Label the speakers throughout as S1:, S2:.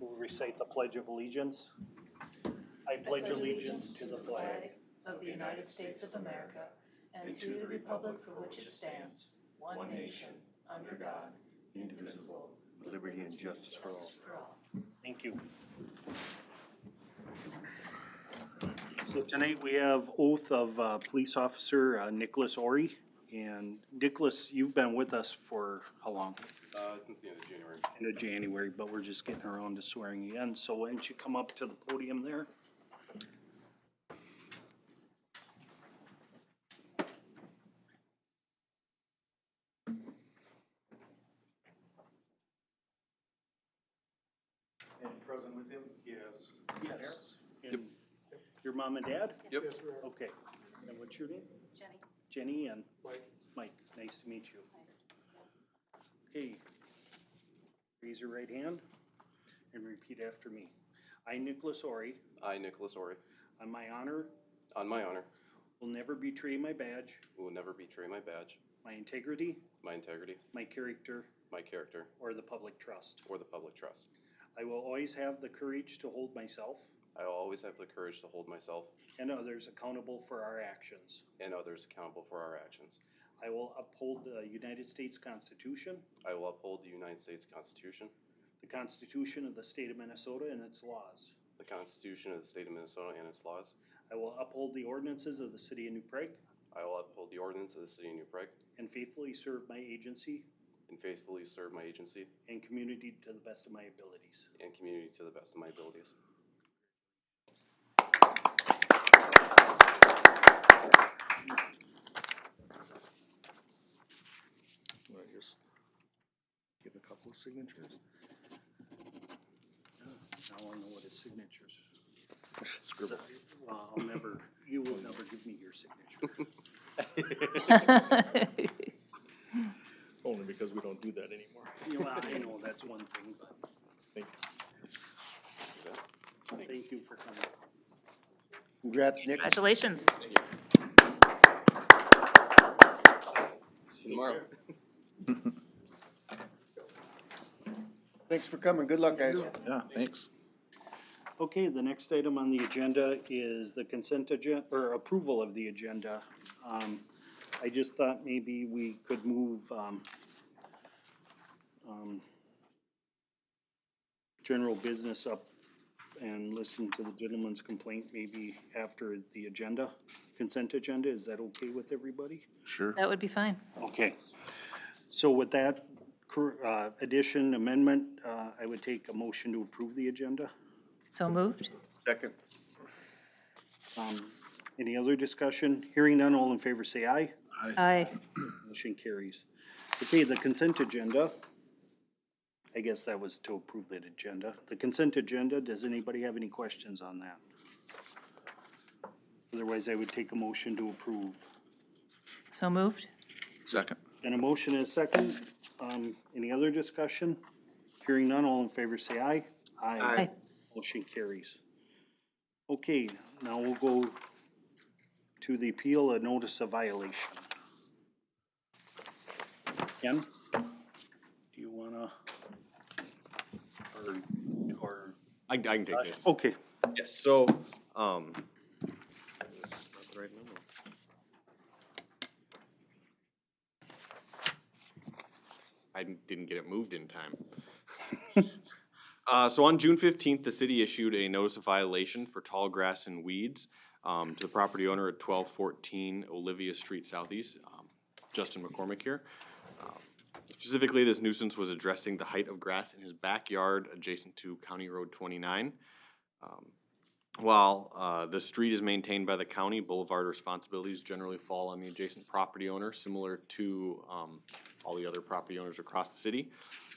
S1: We'll recite the Pledge of Allegiance. I pledge allegiance to the flag
S2: of the United States of America and to the republic for which it stands, one nation, under God, indivisible, with
S3: liberty and justice for all.
S2: for all.
S1: Thank you. So tonight we have oath of uh, Police Officer uh, Nicholas Ori. And Nicholas, you've been with us for how long?
S4: Uh, since the end of January.
S1: End of January, but we're just getting around to swearing you in. So why don't you come up to the podium there?
S3: And present with him is. Yes.
S1: And Your mom and dad?
S4: Yep.
S3: Yes, we are.
S1: Okay. And what's your name?
S5: Jenny,
S1: Jenny and
S3: Mike,
S1: Mike. Nice to meet you.
S5: nice.
S1: Okay. Raise your right hand and repeat after me. I, Nicholas Ori,
S4: I, Nicholas Ori,
S1: on my honor,
S4: on my honor,
S1: will never betray my badge,
S4: will never betray my badge,
S1: my integrity,
S4: my integrity,
S1: my character,
S4: my character,
S1: or the public trust.
S4: or the public trust.
S1: I will always have the courage to hold myself
S4: I will always have the courage to hold myself
S1: and others accountable for our actions.
S4: and others accountable for our actions.
S1: I will uphold the United States Constitution,
S4: I will uphold the United States Constitution,
S1: the Constitution of the State of Minnesota and its laws.
S4: the Constitution of the State of Minnesota and its laws.
S1: I will uphold the ordinances of the City of New Prague
S4: I will uphold the ordinance of the City of New Prague
S1: and faithfully serve my agency
S4: and faithfully serve my agency
S1: and community to the best of my abilities.
S4: and community to the best of my abilities.
S3: wanna just give a couple of signatures?
S1: I want to know what his signatures. Well, I'll never, you will never give me your signature.
S3: Only because we don't do that anymore.
S1: You know, I know that's one thing, but
S3: Thanks.
S1: thank you for coming.
S3: Congrats, Nick.
S2: Congratulations.
S4: See you tomorrow.
S3: Thanks for coming. Good luck, guys.
S6: Yeah, thanks.
S1: Okay, the next item on the agenda is the consent agenda, or approval of the agenda. Um, I just thought maybe we could move, um, um, general business up and listen to the gentleman's complaint maybe after the agenda, consent agenda. Is that okay with everybody?
S6: Sure.
S2: That would be fine.
S1: Okay. So with that cor- uh, addition, amendment, uh, I would take a motion to approve the agenda.
S2: So moved?
S3: Second.
S1: Any other discussion? Hearing none, all in favor say aye.
S2: Aye.
S1: Motion carries. Okay, the consent agenda. I guess that was to approve that agenda. The consent agenda, does anybody have any questions on that? Otherwise, I would take a motion to approve.
S2: So moved?
S6: Second.
S1: And a motion and a second. Um, any other discussion? Hearing none, all in favor say aye.
S2: Aye.
S1: Motion carries. Okay, now we'll go to the appeal, a notice of violation. Ken, do you wanna? Or, or,
S7: I, I can take this.
S1: okay,
S7: Yes, so, um. is this not the right number? I didn't- didn't get it moved in time. Uh, so on June fifteenth, the city issued a notice of violation for tall grass and weeds, um, to the property owner at twelve fourteen Olivia Street Southeast, um, Justin McCormick here. Um, Specifically, this nuisance was addressing the height of grass in his backyard adjacent to County Road twenty-nine. Um, While uh, the street is maintained by the county, boulevard responsibilities generally fall on the adjacent property owner, similar to um, all the other property owners across the city.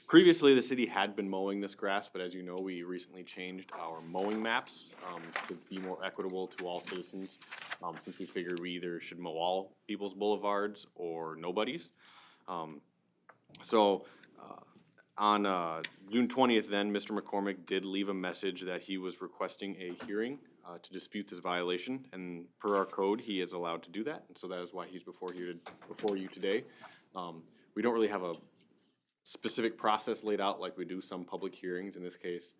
S7: Previously, the city had been mowing this grass, but as you know, we recently changed our mowing maps um, to be more equitable to all citizens, um, since we figured we either should mow all people's boulevards or nobody's. Um, So uh, on uh, June twentieth, then, Mr. McCormick did leave a message that he was requesting a hearing uh, to dispute this violation, and per our code, he is allowed to do that, and so that is why he's before you, before you today. Um, We don't really have a specific process laid out like we do some public hearings. In this case,